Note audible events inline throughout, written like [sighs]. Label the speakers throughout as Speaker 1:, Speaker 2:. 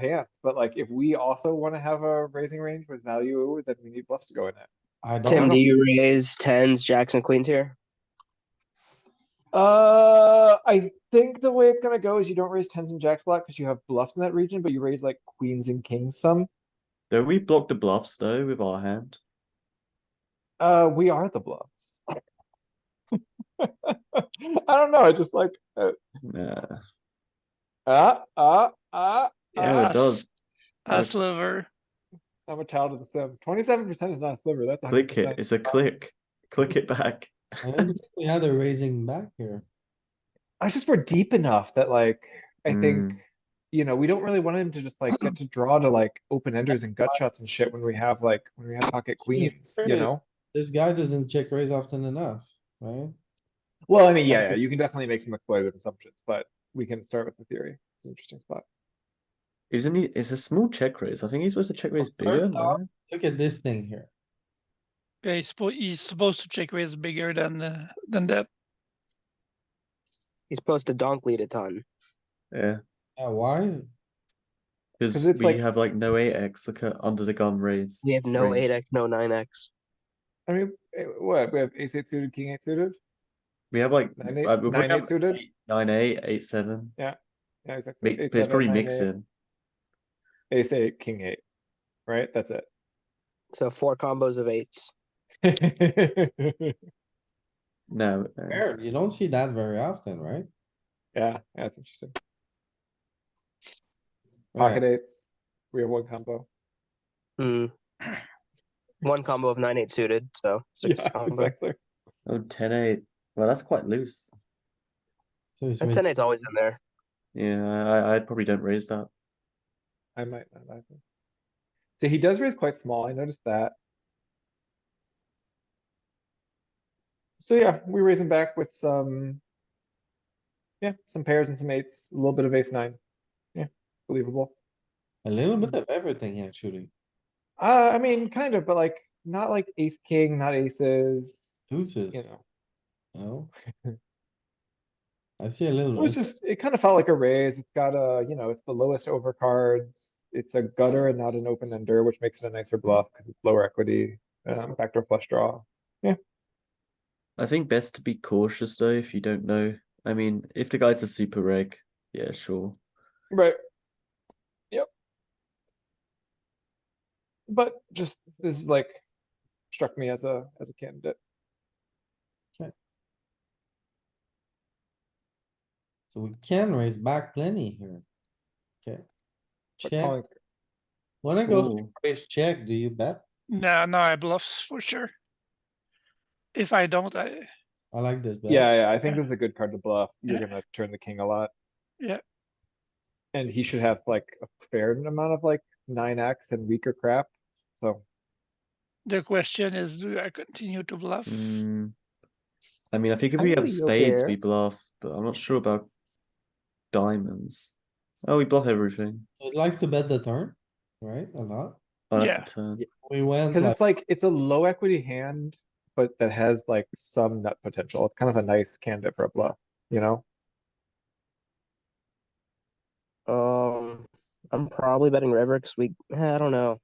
Speaker 1: pants, but like if we also wanna have a raising range with value, then we need bluffs to go in it.
Speaker 2: I
Speaker 3: Tim, do
Speaker 2: don't know.
Speaker 3: you raise tens, jacks, and queens here?
Speaker 1: Uh, I think the way it's gonna go is you don't raise tens and jacks a lot because you have bluffs in that region, but you raise like queens and kings some.
Speaker 4: Don't we block the bluffs though with our hand?
Speaker 1: Uh, we are the bluffs. [laughs] I don't know, I just like, uh,
Speaker 4: Yeah,
Speaker 1: ah, ah, ah,
Speaker 4: yeah,
Speaker 1: ah,
Speaker 4: it does.
Speaker 5: A sliver.
Speaker 1: I'm a child of the sim. Twenty-seven percent is not a sliver, that's.
Speaker 4: Click it.
Speaker 1: 100%.
Speaker 4: It's a click. Click it back.
Speaker 2: I don't think We had a raising back here.
Speaker 1: I just we're deep enough that like, I think,
Speaker 4: Mm.
Speaker 1: you know, we don't really want him to just like get to draw to like open enders and gut shots and shit when we have like, when we have pocket queens, you
Speaker 2: Right.
Speaker 1: know?
Speaker 2: This guy doesn't check raise often enough, right?
Speaker 1: Well, I mean, yeah, yeah, you can definitely make some exploitative assumptions, but we can start with the theory. It's an interesting spot.
Speaker 4: Isn't he? It's a small check raise. I think he's supposed to check raise
Speaker 2: First
Speaker 4: bigger.
Speaker 2: off-
Speaker 4: no?
Speaker 2: Look at this thing here.
Speaker 5: Yeah, he's supposed he's supposed to check raise bigger than uh, than that.
Speaker 3: He's supposed to donk lead a ton.
Speaker 4: Yeah,
Speaker 2: Yeah, why?
Speaker 4: because
Speaker 1: it's
Speaker 4: we
Speaker 1: like-
Speaker 4: have like no eight X like uh, under the gun raise.
Speaker 3: We have no
Speaker 4: range.
Speaker 3: eight X, no nine X.
Speaker 1: I mean, eh, what, we have ace eight suited, king eight suited?
Speaker 4: We have like
Speaker 1: Nine eight-
Speaker 4: uh, we probably
Speaker 1: nine eight
Speaker 4: have
Speaker 1: suited?
Speaker 4: eight- Nine eight, eight seven.
Speaker 1: Yeah, exactly.
Speaker 4: Mi-
Speaker 1: Eight,
Speaker 4: but it's
Speaker 1: seven,
Speaker 4: probably
Speaker 1: nine, eight,
Speaker 4: mixing.
Speaker 1: Ace eight, king eight, right? That's it. [laughs]
Speaker 3: So four combos of eights.
Speaker 4: No, uh, no.
Speaker 2: Rare, you don't see that very often, right?
Speaker 1: Yeah, that's interesting. Pocket
Speaker 2: Alright,
Speaker 1: eights, we have one combo. [sighs]
Speaker 3: Hmm. One combo of nine eight suited, so six
Speaker 1: [laughs] Yeah,
Speaker 3: combo.
Speaker 1: exactly.
Speaker 4: Oh, 10 8. Well, that's quite loose.
Speaker 2: so he's
Speaker 3: And
Speaker 2: raising-
Speaker 3: ten eight's always in there.
Speaker 4: Yeah, I, I probably don't raise that.
Speaker 1: I might not either. So he does raise quite small, I noticed that. So yeah, we raise him back with some. Yeah, some pairs and some eights, a little bit of ace nine. Yeah, believable.
Speaker 2: A little bit of everything actually.
Speaker 1: Uh, I mean, kind of, but like, not like ace king, not aces,
Speaker 2: Deuces,
Speaker 1: you
Speaker 2: you
Speaker 1: know. [laughs]
Speaker 2: know? I see a little.
Speaker 1: It was just, it kind of felt like a raise. It's got a, you know, it's the lowest over cards. It's a gutter and not an open ender, which makes it a nicer bluff because it's lower equity, um, backdoor flush draw.
Speaker 4: I think best to be cautious though if you don't know. I mean, if the guy's a super reg, yeah, sure.
Speaker 1: Right. Yep. But just this is like struck me as a as a candidate.
Speaker 2: So we can raise back plenty here. Okay.
Speaker 1: but
Speaker 2: Check,
Speaker 1: calling's-
Speaker 2: wanna go
Speaker 4: Cool.
Speaker 2: raise check, do you bet?
Speaker 5: No, no, I bluffs for sure. If I don't, I
Speaker 2: I like this bet.
Speaker 1: Yeah, yeah, I think this is a good card to bluff. You're gonna turn the king a lot.
Speaker 5: Yeah.
Speaker 1: And he should have like a fair amount of like nine X and weaker crap, so.
Speaker 5: the question is, do I continue to bluff?
Speaker 4: Mm. I mean, I think if
Speaker 1: I
Speaker 4: we
Speaker 1: know
Speaker 4: have
Speaker 1: you're
Speaker 4: spades,
Speaker 1: there.
Speaker 4: we bluff, but I'm not sure about diamonds. Oh, we bluff everything.
Speaker 2: It likes to bet the turn, right? A lot.
Speaker 4: Oh, that's
Speaker 5: Yeah.
Speaker 4: the turn.
Speaker 2: We went
Speaker 1: Cause
Speaker 2: like,
Speaker 1: it's like, it's a low equity hand, but that has like some nut potential. It's kind of a nice candidate for a bluff, you know?
Speaker 3: Um, I'm probably betting river because we. eh, I don't know.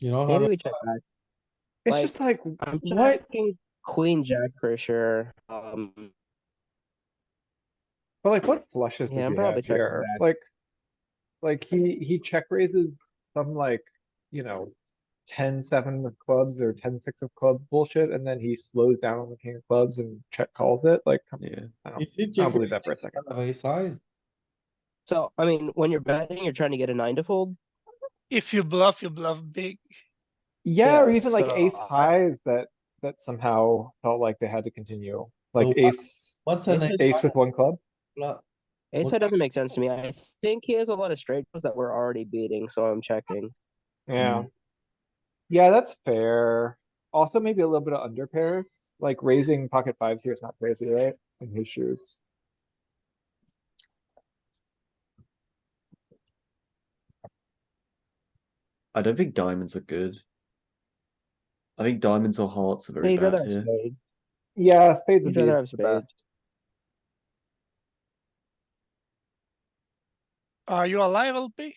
Speaker 2: you know,
Speaker 3: Maybe
Speaker 2: how
Speaker 3: we check back.
Speaker 1: It's
Speaker 3: Like,
Speaker 1: just like,
Speaker 3: I'm
Speaker 1: Uh, What?
Speaker 3: checking queen jack for sure. Um,
Speaker 1: But like, what flushes
Speaker 3: Yeah,
Speaker 1: did
Speaker 3: I'm
Speaker 1: we
Speaker 3: probably
Speaker 1: have
Speaker 3: checking
Speaker 1: here?
Speaker 3: back.
Speaker 1: Like, like he, he check raises some like, you know, ten, seven of clubs or ten, six of club bullshit, and then he slows down on the king of clubs and check calls it, like, come-
Speaker 4: Yeah.
Speaker 1: I don't-
Speaker 2: If you
Speaker 1: I
Speaker 2: check
Speaker 1: don't
Speaker 2: [laughs]
Speaker 1: believe that for a second.
Speaker 2: kind of a size,
Speaker 3: so I mean, when you're betting, you're trying to get a nine to fold.
Speaker 5: If you bluff, you bluff big.
Speaker 1: Yeah, or
Speaker 3: Yeah,
Speaker 1: even like
Speaker 3: so
Speaker 1: ace
Speaker 3: I-
Speaker 1: highs that, that somehow felt like they had to continue,
Speaker 2: So
Speaker 1: like
Speaker 2: what-
Speaker 1: ace,
Speaker 2: what's an
Speaker 3: This
Speaker 2: ace?
Speaker 3: is-
Speaker 1: ace with one club.
Speaker 2: flop?
Speaker 3: Ace
Speaker 2: What-
Speaker 3: high doesn't make sense to me. I think he has a lot of straight draws that we're already beating, so I'm checking.
Speaker 1: Yeah. Hmm. Yeah, that's fair. Also, maybe a little bit of under pairs, like raising pocket fives here is not crazy, right? In his shoes.
Speaker 4: I don't think diamonds are good. I think diamonds or hearts are
Speaker 3: Yeah,
Speaker 4: very
Speaker 3: you'd rather
Speaker 4: bad
Speaker 3: have
Speaker 4: here.
Speaker 3: spades.
Speaker 1: Yeah, spades would
Speaker 3: You'd
Speaker 1: be
Speaker 3: rather have
Speaker 1: the
Speaker 3: spades.
Speaker 1: best.
Speaker 5: Are you alive, LP?